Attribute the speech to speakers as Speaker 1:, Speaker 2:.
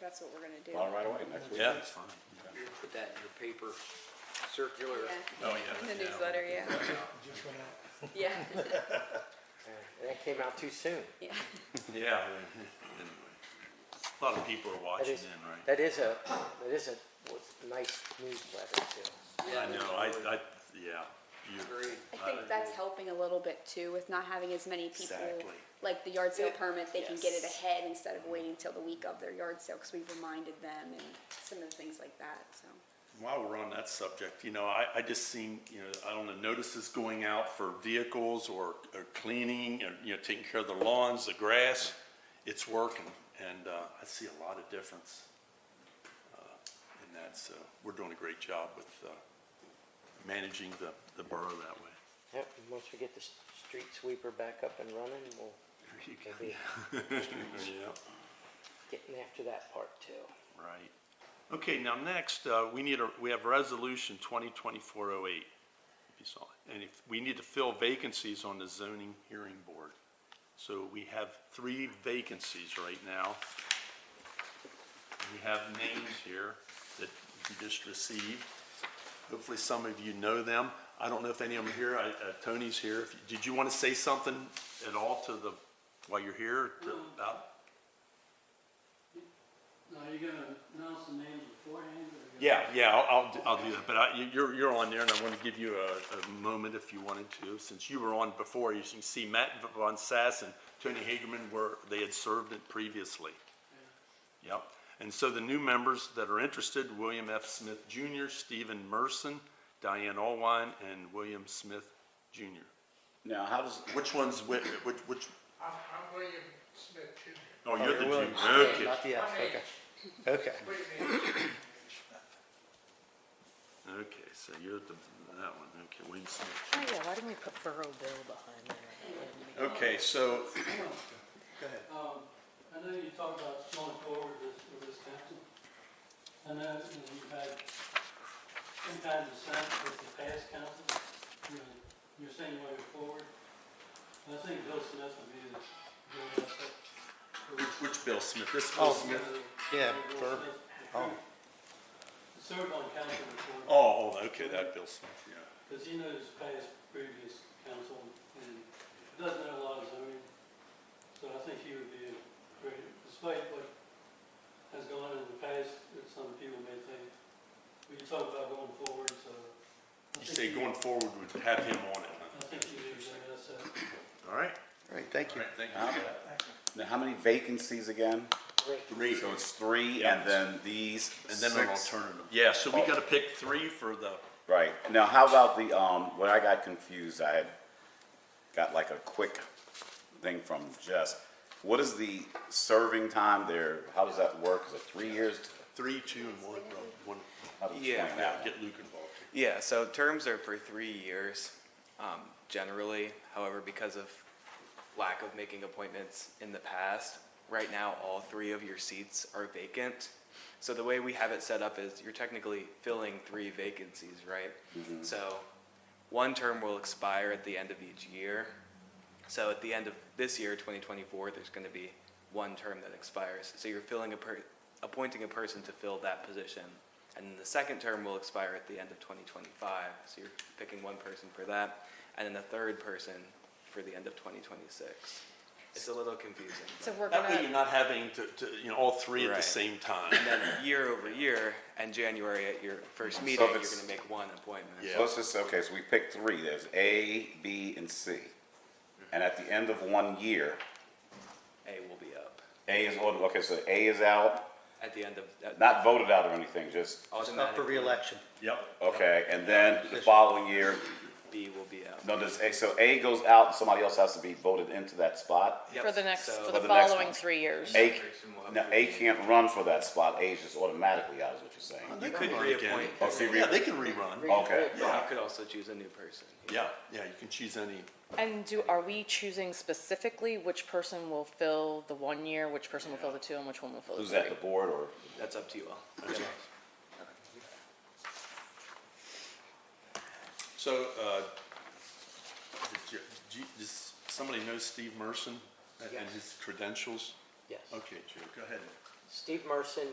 Speaker 1: that's what we're gonna do.
Speaker 2: Well, right away, next week.
Speaker 3: Yeah.
Speaker 2: That's fine.
Speaker 4: Put that in your paper circular.
Speaker 1: Yeah,
Speaker 3: Oh, yeah.
Speaker 1: in the newsletter, yeah.
Speaker 5: Just went out.
Speaker 1: Yeah,
Speaker 6: That came out too soon.
Speaker 1: yeah.
Speaker 3: Yeah. Anyway. A lot of people are
Speaker 6: That
Speaker 3: watching
Speaker 6: is,
Speaker 3: in, right?
Speaker 6: that is a, that is a was a nice newsletter too.
Speaker 3: I know, I, I, yeah. You-
Speaker 4: Agreed.
Speaker 1: I think that's helping a little bit too with not having as many people.
Speaker 2: Exactly.
Speaker 1: Like the yard sale permit, they can get it
Speaker 7: Yes.
Speaker 1: ahead instead of waiting till the week of their yard sale, cause we've reminded them and some of the things like that, so.
Speaker 3: While we're on that subject, you know, I, I just seen, you know, I don't know, notices going out for vehicles or, or cleaning, or, you know, taking care of the lawns, the grass. It's working, and, uh, I see a lot of difference, uh, in that, so we're doing a great job with, uh, managing the, the borough that way.
Speaker 6: Yep, and once we get the s- street sweeper back up and running, we'll
Speaker 3: You
Speaker 6: we'll be
Speaker 3: Yeah.
Speaker 6: getting after that part too.
Speaker 3: Right. Okay, now next, uh, we need a, we have resolution twenty twenty-four oh eight, if you saw it. And if, we need to fill vacancies on the zoning hearing board. So we have three vacancies right now. We have names here that you just received. Hopefully some of you know them. I don't know if any of them are here. I, uh, Tony's here. If you- Did you want to say something at all to the, while you're here, to- about?
Speaker 8: Now, are you gonna announce the names beforehand, or? you-
Speaker 3: Yeah, yeah, I'll, I'll, do- I'll do that, but I, you- you're, you're on there, and I want to give you a, a moment if you wanted to, since you were on before, you can see Matt Von Sass and Tony Hagerman were, they had served it previously. Yep, and so the new members that are interested, William F. Smith Jr., Stephen Merson, Diane Allwine, and William Smith Jr.
Speaker 2: Now, how does,
Speaker 3: Which one's, which, which, which,
Speaker 5: I'm, I'm William Smith Jr.
Speaker 3: oh, you're the
Speaker 6: William
Speaker 3: junior,
Speaker 6: Smith,
Speaker 3: okay,
Speaker 6: Not the F, okay.
Speaker 5: My name's
Speaker 6: Okay.
Speaker 5: William H.
Speaker 3: okay, so you're the, that one, okay, William Smith.
Speaker 7: Oh, yeah, why didn't we put Borough Bill behind there?
Speaker 3: Okay, so
Speaker 8: Um, I know you talked about going forward with, with this council. I know you know, you've had some kind of dissent with the past council, you know, you're saying you want to go forward. I think Bill Smith would be the, the,
Speaker 3: Which, which Bill Smith? This Bill
Speaker 6: Oh,
Speaker 3: Smith?
Speaker 6: yeah,
Speaker 8: Bill
Speaker 6: for-
Speaker 8: Smith,
Speaker 6: oh.
Speaker 8: Served on council before.
Speaker 3: Oh, oh, okay, that Bill Smith, yeah.
Speaker 8: Because he knows past previous council and doesn't know a lot of zoning. So I think he would be a great, despite what has gone in the past, that some people may think, we talk about going forward, so.
Speaker 3: You
Speaker 8: I think
Speaker 3: say
Speaker 8: he-
Speaker 3: going forward, would have him on it, huh?
Speaker 8: I think he would bring us a
Speaker 3: All right.
Speaker 6: Great, thank Uh,
Speaker 3: All right, thank
Speaker 2: how,
Speaker 3: you.
Speaker 2: now, how many vacancies again?
Speaker 3: Three.
Speaker 2: So it's three,
Speaker 3: Yeah.
Speaker 2: and then these
Speaker 3: And then an
Speaker 2: six.
Speaker 3: alternative. Yeah, so we
Speaker 2: Oh.
Speaker 3: gotta pick three for the,
Speaker 2: Right. Now, how about the, um, when I got confused, I had got like a quick thing from Jess. What is the serving time there? How does that work? Is it three years?
Speaker 3: three, two, and one, bro, one.
Speaker 2: How do you
Speaker 9: Yeah.
Speaker 2: explain
Speaker 3: Yeah,
Speaker 2: that?
Speaker 3: get Luke involved.
Speaker 9: Yeah, so terms are for three years um, generally. However, because of lack of making appointments in the past, right now all three of your seats are vacant. So the way we have it set up is you're technically filling three vacancies, right? So one term will expire at the end of each year. So at the end of this year, 2024, there's going to be one term that expires. So you're filling a per- appointing a person to fill that position. And then the second term will expire at the end of 2025. So you're picking one person for that, and then a third person for the end of 2026. It's a little confusing.
Speaker 1: So we're
Speaker 3: That way you're
Speaker 1: gonna,
Speaker 3: not having to, to, you know, all three at the
Speaker 9: Right.
Speaker 3: same time.
Speaker 9: And then year over year, and January at your first
Speaker 2: So
Speaker 9: meeting,
Speaker 2: if
Speaker 9: you're going
Speaker 2: it's-
Speaker 9: to make one appointment.
Speaker 3: Yeah.
Speaker 2: So let's just, okay, so we picked three. There's A, B, and C. And at the end of one year,
Speaker 9: A will be up
Speaker 2: A is on, okay, so A is out,
Speaker 9: at the end of at
Speaker 2: not voted out or anything, just,
Speaker 6: Up for
Speaker 9: automatically.
Speaker 6: reelection.
Speaker 3: Yep.
Speaker 2: okay, and then the following year,
Speaker 9: B will be up.
Speaker 2: no, does A, so A goes out, and somebody else has to be voted into that spot?
Speaker 9: Yep,
Speaker 7: For the next,
Speaker 9: so-
Speaker 7: for the
Speaker 2: For the next
Speaker 7: following
Speaker 2: one.
Speaker 7: three years.
Speaker 2: A,
Speaker 9: person will have
Speaker 2: now, A can't run for that spot, A is just automatically out, is what you're saying.
Speaker 3: You
Speaker 9: could reappoint.
Speaker 2: Oh, see,
Speaker 3: Yeah, they can rerun.
Speaker 2: Okay,
Speaker 9: Yeah, you could also choose a new person.
Speaker 3: Yeah, yeah, you can choose any.
Speaker 7: And do, are we choosing specifically which person will fill the one year, which person will fill the two, and which one will fill the
Speaker 2: who's
Speaker 7: three?
Speaker 2: that, the board or?
Speaker 9: That's up to you all.
Speaker 3: So, uh, did you- do you- does somebody know Steve Merson and- and
Speaker 6: Yes.
Speaker 3: his credentials?
Speaker 6: Yes.
Speaker 3: Okay, Joe, go ahead.
Speaker 6: Steve Merson